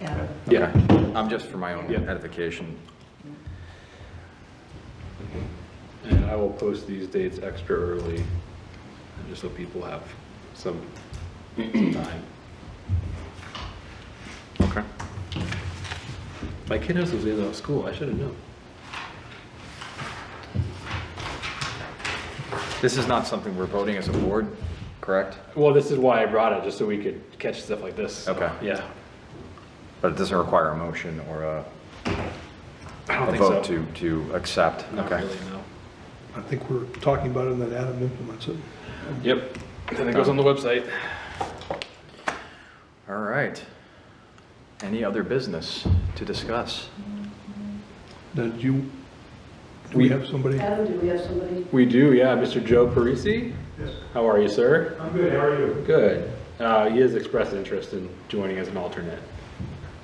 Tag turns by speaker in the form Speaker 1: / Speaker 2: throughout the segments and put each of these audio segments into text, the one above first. Speaker 1: Yeah.
Speaker 2: Yeah, I'm just for my own
Speaker 3: Yeah.
Speaker 2: edification.
Speaker 3: And I will post these dates extra early, just so people have some time.
Speaker 2: Okay.
Speaker 3: My kid has those days out of school, I should have known.
Speaker 2: This is not something we're voting as a board, correct?
Speaker 3: Well, this is why I brought it, just so we could catch stuff like this. so,
Speaker 2: Okay.
Speaker 3: Yeah.
Speaker 2: But it doesn't require a motion or a
Speaker 3: I don't
Speaker 2: a
Speaker 3: think so.
Speaker 2: vote to, to accept?
Speaker 3: Not
Speaker 2: Okay.
Speaker 3: really, no.
Speaker 4: I think we're talking about it and then Adam implements it.
Speaker 3: Yep, and it goes on the website.
Speaker 2: All right. Any other business to discuss?
Speaker 4: Now, do you, do we have somebody?
Speaker 1: Adam, do we have somebody?
Speaker 3: We do, yeah, Mr. Joe Parisi?
Speaker 5: Yes.
Speaker 3: How are you, sir?
Speaker 5: I'm good, how are you?
Speaker 3: Good. Uh, he has expressed interest in joining as an alternate,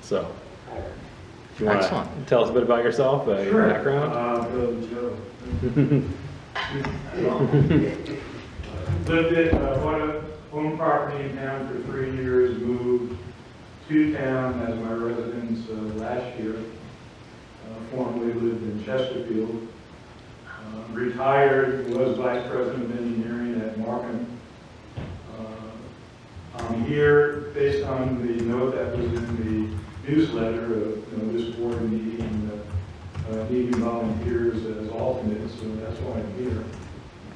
Speaker 3: so. if you wanna
Speaker 2: Excellent.
Speaker 3: Tell us a bit about yourself, uh, your background?
Speaker 5: Uh, Bill and Joe. Lived at, uh, bought a home property in town for three years, moved to town as my residence uh, last year. Uh, Formerly lived in Chesterfield. Uh, Retired, was vice president of engineering at Markham. Uh, I'm here based on the note that was in the newsletter of, you know, this board meeting, uh, uh, needing volunteers as alternates, so that's why I'm here.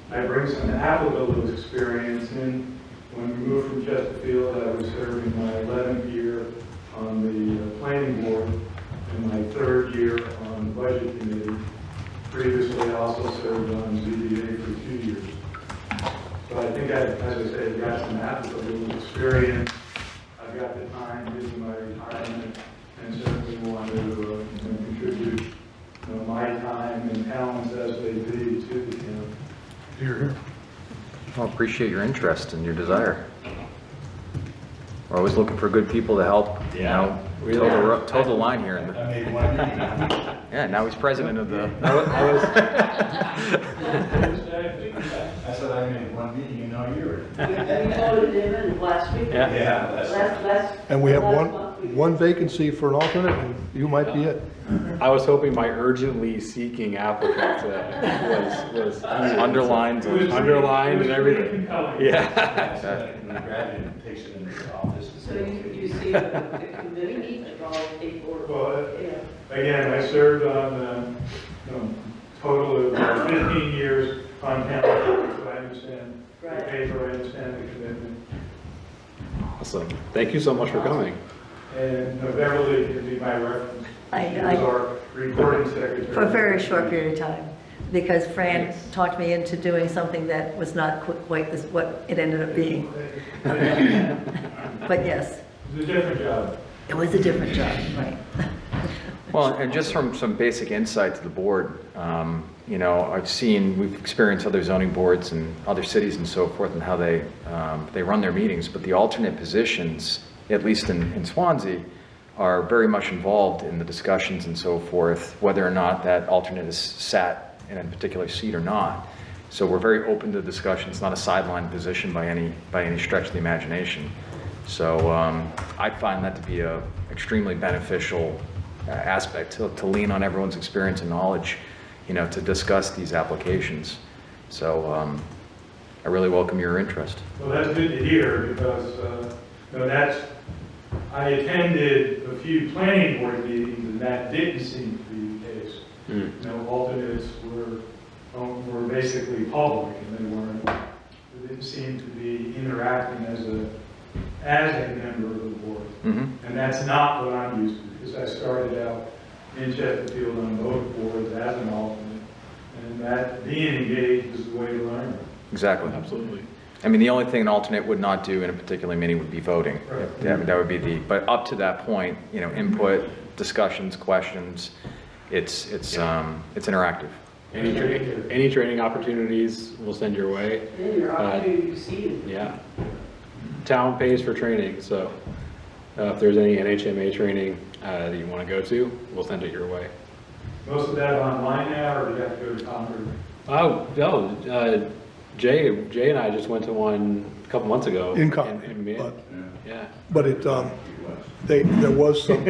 Speaker 5: I bring some Appleville experience in. When we moved from Chesterfield, I was serving my 11th year on the uh, planning board and my third year on the budget committee. Previously, I also served on ZBA for two years. So I think I, as I say, I've got some Appleville experience. I've got the time, given my retirement, and certainly want to uh, you know, contribute you know, my time and talents as they be to the town.
Speaker 4: Here, here.
Speaker 2: Well, appreciate your interest and your desire. We're always looking for good people to help, you
Speaker 3: Yeah.
Speaker 2: know,
Speaker 3: We
Speaker 2: toe the,
Speaker 3: are.
Speaker 2: ro- toe the line here. in the-
Speaker 5: made one. I
Speaker 2: Yeah, now he's president of the,
Speaker 3: I was- I was-
Speaker 5: said I made one meeting, and now you're.
Speaker 1: We voted him in last week.
Speaker 3: Yeah.
Speaker 5: Yeah, that's
Speaker 1: Last, last.
Speaker 4: And we have
Speaker 1: last
Speaker 4: one,
Speaker 1: month we-
Speaker 4: one vacancy for an alternate, and you might be it.
Speaker 3: I was hoping my urgently seeking applicant uh, was, was
Speaker 2: underlined,
Speaker 3: underlined and everything. Yeah.
Speaker 5: Graduate takes it into the office.
Speaker 1: So you, you see the the committee of all eight board.
Speaker 5: Well,
Speaker 1: Yeah.
Speaker 5: Again, I served on, um, you know, total of 15 years on town, board, so I understand the
Speaker 1: Right.
Speaker 5: paper, I understand the commitment.
Speaker 3: Awesome. Thank you so much for coming.
Speaker 5: And uh, Beverly can be my reference.
Speaker 6: I-
Speaker 5: She
Speaker 6: I-
Speaker 5: was our recording secretary.
Speaker 6: for a very short period of time, because Fran talked me into doing something that was not qu- quite this, what it ended up being. But yes,
Speaker 5: It's a different job.
Speaker 6: it was a different job, right?
Speaker 2: Well, and just from some basic insight to the board, um, you know, I've seen, we've experienced other zoning boards and other cities and so forth and how they, um, they run their meetings, but the alternate positions, at least in in Swansea, are very much involved in the discussions and so forth, whether or not that alternate is sat in a particular seat or not. So we're very open to discussion. It's not a sideline position by any, by any stretch of the imagination. So um, I find that to be a extremely beneficial uh, aspect, to to lean on everyone's experience and knowledge, you know, to discuss these applications. So um, I really welcome your interest.
Speaker 5: Well, that's good to hear because, uh, you know, that's, I attended a few planning board meetings and that didn't seem to be the case.
Speaker 3: Mm.
Speaker 5: You know, alternates were, um, were basically public and they weren't, they didn't seem to be interacting as a, as a member of the board.
Speaker 2: Mhm.
Speaker 5: And that's not what I'm used to, because I started out in Chesterfield on both boards as an alternate. And that, being engaged is the way to learn.
Speaker 2: Exactly.
Speaker 3: Absolutely.
Speaker 2: I mean, the only thing an alternate would not do in a particular meeting would be voting.
Speaker 5: Right.
Speaker 2: That that would be the, but up to that point, you know, input, discussions, questions, it's, it's, um, it's interactive.
Speaker 3: Any, tra- any training opportunities we'll send your way.
Speaker 1: Then your
Speaker 3: Uh,
Speaker 1: opportunity to see it.
Speaker 3: Yeah. Town pays for training, so uh, if there's any NHMA training uh, that you want to go to, we'll send it your way.
Speaker 5: Most of that online now, or do you have to go to Concord?
Speaker 3: Oh, no, uh, Jay, Jay and I just went to one a couple months ago.
Speaker 4: In Concord,
Speaker 3: in Mid-
Speaker 4: but-
Speaker 3: Yeah.
Speaker 4: But it, um, they, there was some